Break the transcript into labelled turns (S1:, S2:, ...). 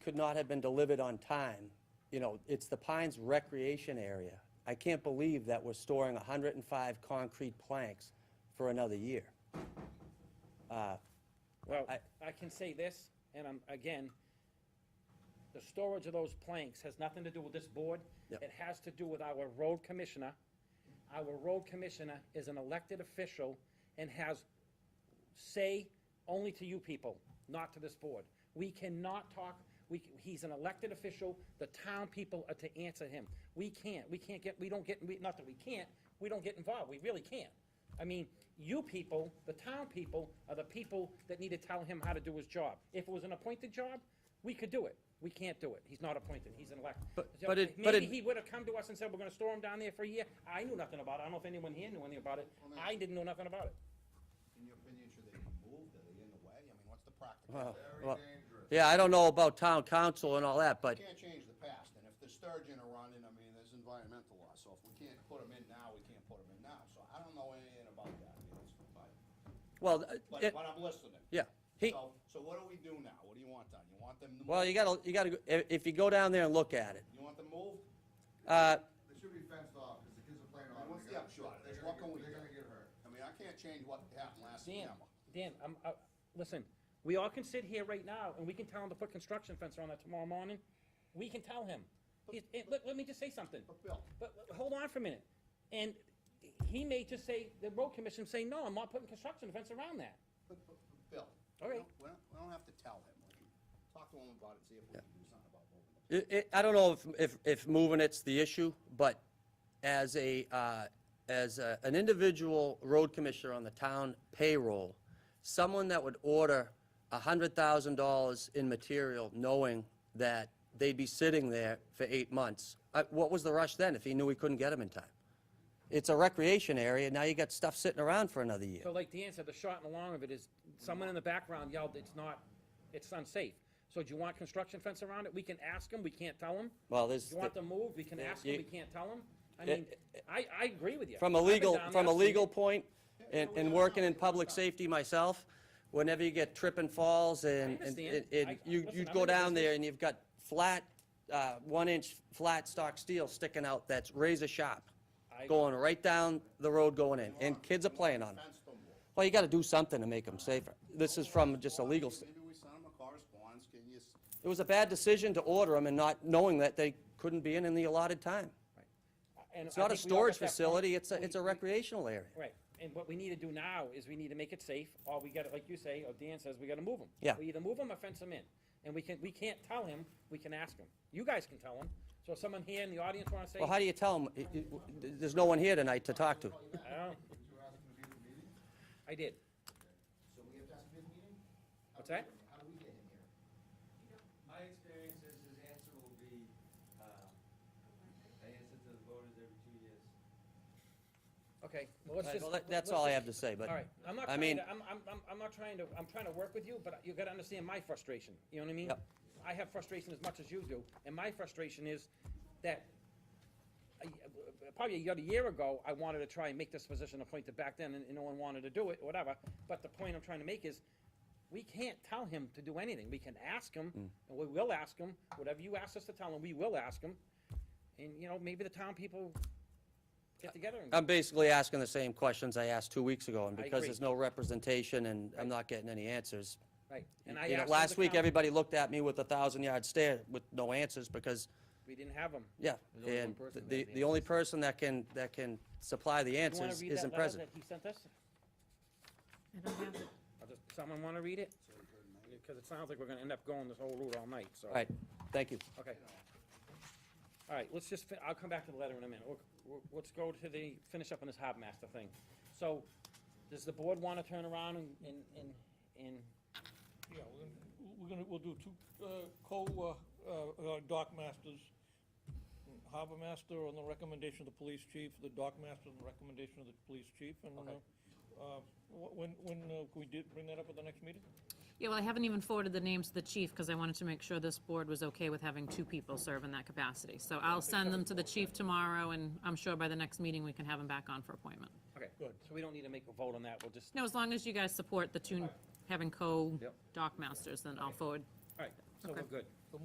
S1: could not have been delivered on time. You know, it's the Pines Recreation Area. I can't believe that we're storing 105 concrete planks for another year. Uh,
S2: Well,
S1: I-
S2: I can say this, and I'm, again, the storage of those planks has nothing to do with this board.
S1: Yep.
S2: It has to do with our road commissioner. Our road commissioner is an elected official and has say only to you people, not to this board. We cannot talk, we, he's an elected official, the town people are to answer him. We can't, we can't get, we don't get, we- not that we can't, we don't get involved, we really can't. I mean, you people, the town people, are the people that need to tell him how to do his job. If it was an appointed job, we could do it. We can't do it. He's not appointed, he's an elected.
S1: But- but it- but
S2: Maybe
S1: it-
S2: he would have come to us and said, we're gonna store him down there for a year. I knew nothing about it. I don't know if anyone here knew anything about it. I didn't know nothing about it.
S3: In your opinion, should they be moved, are they in the way? I mean, what's the
S1: Well,
S3: practical?
S1: well,
S3: You
S4: dangerous.
S1: Yeah, I don't know about town council and all that, but
S3: Can't change the past, and if the sturgeon are running, I mean, there's environmental law, so if we can't put them in now, we can't put them in now, so I don't know anything about that, I mean, it's, but,
S1: Well, uh,
S3: but,
S1: it-
S3: but I'm listening.
S1: yeah, he,
S3: So, so what do we do now? What do you want done? You want them to move?
S1: well, you gotta, you gotta, go- if, if you go down there and look at it,
S3: You want them moved?
S1: uh,
S4: They should be fenced off, because the kids are playing on
S3: I mean,
S4: them.
S3: what's the
S4: They're gonna-
S3: upshot of
S4: they're
S3: this?
S4: gonna
S3: What can
S4: get-
S3: we
S4: They're
S3: do?
S4: gonna get hurt.
S3: I mean, I can't change what happened last
S2: Dan,
S3: September.
S2: Dan, I'm, uh, listen, we all can sit here right now and we can tell him to put construction fence around that tomorrow morning. We can tell him. He's- eh, let, let me just say something.
S3: But Bill,
S2: But, but hold on for a minute. And he may just say, the road commission say, no, I'm not putting construction fence around that.
S3: but, but, but Bill.
S2: All
S3: we
S2: right.
S3: don't- We don't, we don't have to tell him. We can Talk to him about it, see if we can do something about moving them.
S1: it, it, I don't know if, if, if moving it's the issue, but as a, uh, as a, an individual road commissioner on the town payroll, someone that would order a hundred thousand dollars in material knowing that they'd be sitting there for eight months, uh, what was the rush then if he knew he couldn't get them in time? It's a recreation area, now you got stuff sitting around for another year.
S2: So like Dan said, the short and the long of it is, someone in the background yelled, it's not, it's unsafe. So do you want construction fence around it? We can ask him, we can't tell him.
S1: Well, there's.
S2: Do you want them moved? We can ask
S1: you-
S2: him, we can't tell him. I mean, I, I agree with you.
S1: From a
S2: I've been
S1: legal,
S2: down
S1: from a
S2: there, I've seen
S1: legal
S2: it.
S1: point, and, and working in public safety myself, whenever you get tripping falls and, and,
S2: understand.
S1: and- and
S2: I-
S1: you,
S2: listen,
S1: you'd
S2: I'm
S1: go
S2: in the
S1: down there
S2: business.
S1: and you've got flat, uh, one-inch flat stock steel sticking out that's razor sharp,
S2: I-
S1: going right down the road going in, and kids are playing on it.
S3: Fence them, Wolf.
S1: Well, you gotta do something to make them safer. This is from just a legal, st-
S3: Maybe we send them a correspondence, can you, s-
S1: it was a bad decision to order them and not knowing that they couldn't be in in the allotted time.
S2: And
S1: It's
S2: I
S1: not a
S2: think we all
S1: storage
S2: got that point.
S1: facility, it's a,
S2: We-
S1: it's a
S2: we-
S1: recreational area.
S2: Right, and what we need to do now is we need to make it safe, or we gotta, like you say, or Dan says, we gotta move them.
S1: Yeah.
S2: We either move them or fence them in, and we can, we can't tell him, we can ask him. You guys can tell him, so if someone here in the audience wanna say,
S1: Well, how do you tell them, there's no one here tonight to talk to?
S2: I don't, know,
S4: Did you ask him to be at the meeting?
S2: I did.
S4: So we have to ask him to be at the meeting?
S2: What's that?
S4: How do we get him here?
S5: My experience is his answer will be, uh, I answer to the voters every two years.
S2: Okay, well, let's
S1: Right,
S2: just.
S1: well, that- that's
S2: let's
S1: all I
S2: just-
S1: have to say, but
S2: All right, I'm not
S1: I
S2: trying
S1: mean-
S2: to, I'm, I'm, I'm- I'm not trying to, I'm trying to work with you, but you gotta understand my frustration, you know what I mean?
S1: Yep.
S2: I have frustration as much as you do, and my frustration is that, a y- uh, probably about a year ago, I wanted to try and make this position appointed back then, and and no one wanted to do it, whatever. But the point I'm trying to make is, we can't tell him to do anything. We can ask him,
S1: Mm.
S2: and we will ask him, whatever you ask us to tell him, we will ask him. And, you know, maybe the town people
S1: Uh,
S2: get together and.
S1: I'm basically asking the same questions I asked two weeks ago, and
S2: I
S1: because
S2: agree.
S1: there's no representation and I'm not getting any answers.
S2: Right,
S1: You
S2: and I
S1: know,
S2: asked.
S1: last week,
S2: everybody
S1: everybody looked at me with a thousand-yard stare with no answers, because,
S2: We didn't have them.
S1: yeah.
S6: There's only one
S1: And
S6: person that
S1: the,
S6: had the
S1: the only person that can, that can supply the
S2: You wanna
S1: answers
S2: read
S1: isn't
S2: that letter
S1: present.
S2: that he sent us?
S7: I don't have it.
S2: I'll just, someone wanna read it?
S3: so we could make
S2: Because it sounds like we're gonna end up going this whole route all night, so.
S1: All right, thank you.
S2: Okay. All right, let's just, fin- I'll come back to the letter in a minute. We'll- we'll- Let's go to the, finish up on this harbor master thing. So, does the board wanna turn around and, and, and- and,
S8: Yeah, we're gonna, we're gonna, we'll do two, uh, co, uh, uh, uh, dock masters. Harbor master on the recommendation of the police chief, the dock master on the recommendation of the police chief, and, uh,
S2: Okay.
S8: uh, wh- when, when, uh, can we do, bring that up at the next meeting?
S7: Yeah, well, I haven't even forwarded the names to the chief because I wanted to make sure this board was okay with having two people serve in that capacity. So I'll send them to the chief tomorrow and I'm sure by the next meeting we can have them back on for appointment.
S2: okay. Good. So we don't need to make a vote on that, we'll just,
S7: No, as long as you guys support the two, having co
S2: Yep.
S7: dock masters, then I'll forward.
S2: all right, so we're good.